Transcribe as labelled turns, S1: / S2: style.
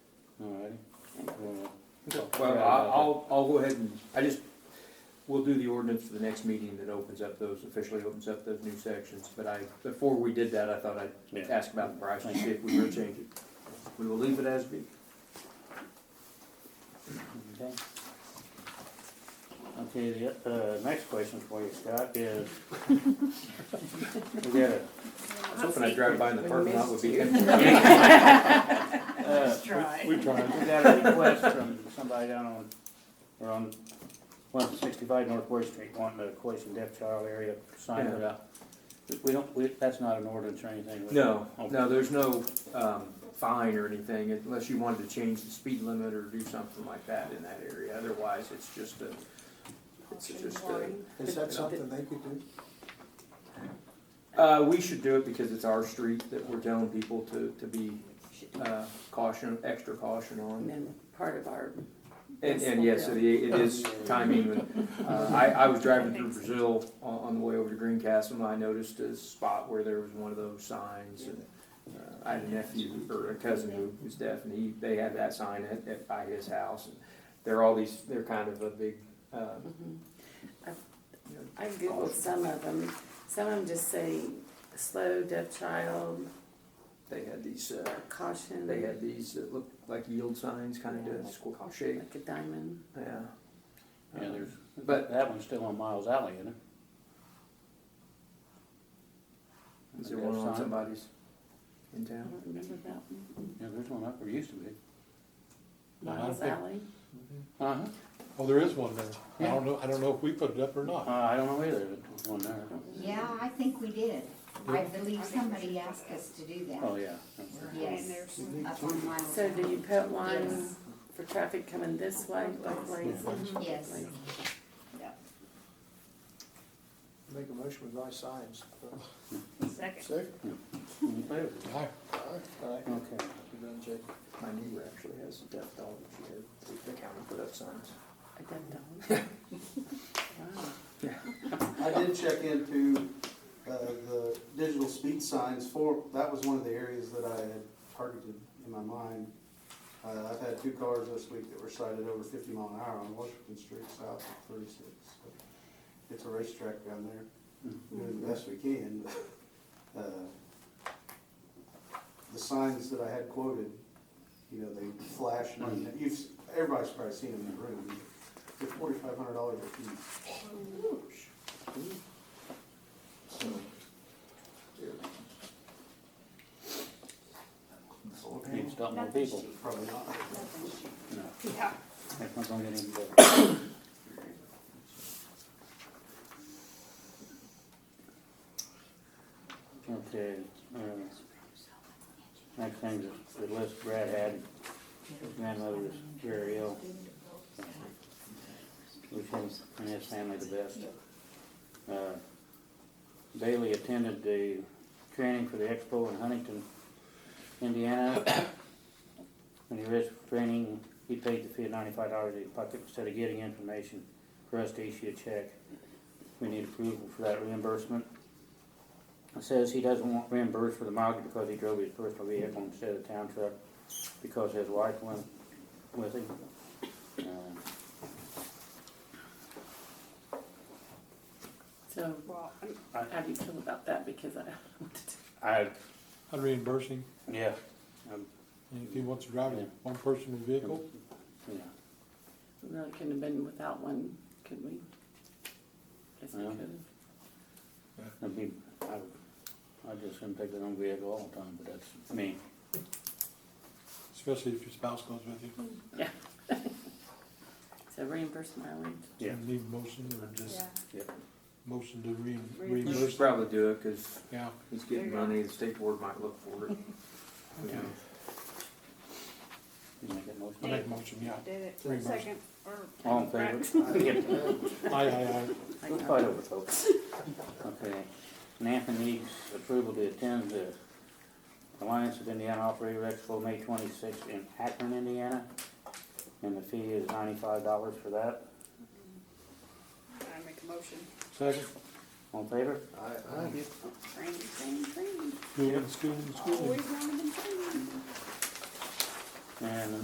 S1: Uh,
S2: Well, I- I'll, I'll go ahead and, I just, we'll do the ordinance for the next meeting that opens up those, officially opens up those new sections. But I, before we did that, I thought I'd
S1: Yeah.
S2: ask about the price and see if we were changing. We will leave it as be.
S1: Okay, Okay. the, uh, next question for you, Scott, is, we got a,
S2: I was hoping I'd drive by in the parking lot would be empty.
S1: uh,
S3: try.
S4: We tried.
S1: we got a request from somebody down on, or on one sixty-five North Word Street, wanting a Quaison Deaf Child area sign put up. We don't, we, that's not an ordinance or anything. we-
S2: No,
S1: Okay.
S2: no, there's no, um, fine or anything unless you wanted to change the speed limit or do something like that in that area. Otherwise, it's just a, it's just a.
S5: Is that something they could do?
S2: Uh, we should do it because it's our street that we're telling people to, to be uh, caution, extra caution
S3: And
S2: on.
S3: then part of our,
S2: And, and yes, it, i- it is timing. and, Uh, I, I was driving through Brazil on, on the way over to Greencastle and I noticed a spot where there was one of those signs. and uh, I had a nephew or a cousin who was deaf and he, they had that sign at, at, by his house. and They're all these, they're kind of a big, uh, you know,
S3: I googled some of them, some of them just say slow, deaf child,
S2: they had these, uh,
S3: caution.
S2: they had these that looked like yield signs, kind of square shape.
S3: Like a diamond.
S2: Yeah. Uh,
S1: Yeah, there's,
S2: But-
S1: but that one's still on Miles Alley, isn't it?
S2: Is there one on
S1: Sign?
S2: somebody's in
S3: I
S2: town?
S3: don't remember that one.
S1: Yeah, there's one up, there used to be. I don't
S3: Miles
S1: think-
S3: Alley.
S1: Uh-huh,
S4: Oh, there is one there. I don't know, I don't know if we put it up or
S1: Uh,
S4: not.
S1: I don't know either, there's one there.
S6: Yeah, I think we did. I believe somebody asked us to do
S1: Oh,
S6: that.
S1: yeah.
S6: Yes, up on my.
S3: So do you put lines for traffic coming this way, both ways?
S6: Yes.
S5: Make a motion with my signs. uh, but-
S3: Second.
S5: Second.
S1: In favor?
S4: Aye.
S5: Aye.
S1: Okay.
S5: You're done, Jake.
S2: My neighbor actually has a deaf dog. She had the county put up signs.
S3: A deaf dog. Wow.
S7: I did check into, uh, the digital speed signs for, that was one of the areas that I had targeted in my mind. Uh, I've had two cars this week that were cited over fifty mile an hour on Washington Street south of thirty-six. So It's a racetrack down there, doing the best we can, but, uh, the signs that I had quoted, you know, they flash, and you've, everybody's probably seen them in the room. They're forty-five hundred dollars a piece. So,
S1: Need to stop more people.
S7: probably not.
S1: No,
S6: Yeah.
S1: that's not gonna get any better. Okay, uh, next thing is the list Brad had, his grandmother was very ill. Which was, and his family the best. Uh, Bailey attended the training for the expo in Huntington, Indiana. When he was training, he paid the fee of ninety-five dollars in his pocket instead of getting information for us to issue a check. We need approval for that reimbursement. It says he doesn't want reimbursed for the mileage because he drove his personal vehicle instead of town truck because his wife went with him. Um,
S3: So
S1: I-
S3: how do you feel about that? Because I wanted to
S1: I,
S4: I'd reimburse him.
S1: yeah, um,
S4: And if he wants to drive it, one person in the vehicle,
S1: yeah,
S3: No, it couldn't have been without one, could we? Guess we
S1: Yeah.
S3: could have.
S1: I'd be, I, would- I just couldn't take their own vehicle all the time, but that's me.
S4: especially if your spouse goes with you.
S3: So reimburse mileage.
S1: Yeah.
S4: Need a motion or just
S1: Yep.
S4: motion to reim-
S2: You should
S4: reimburse.
S2: probably do it because
S4: Yeah.
S2: he's getting money. The state board might look for it. Who
S1: Yeah.
S2: knows?
S1: You make that motion?
S4: I make a motion, yeah.
S8: Did it,
S4: Reimbursed.
S8: second, or.
S1: All in favor? Yeah.
S4: Aye, aye, aye.
S3: I
S1: Let's
S3: got
S1: fight
S3: it.
S1: over, folks. Okay, NAFTA needs approval to attend the Alliance of Indiana Operator Expo, May twenty-sixth in Akron, Indiana. And the fee is ninety-five dollars for that.
S8: I make a motion,
S4: Second,
S1: All in favor?
S8: train, train, train,
S4: school, and school, and school.
S8: always running and training.
S1: And the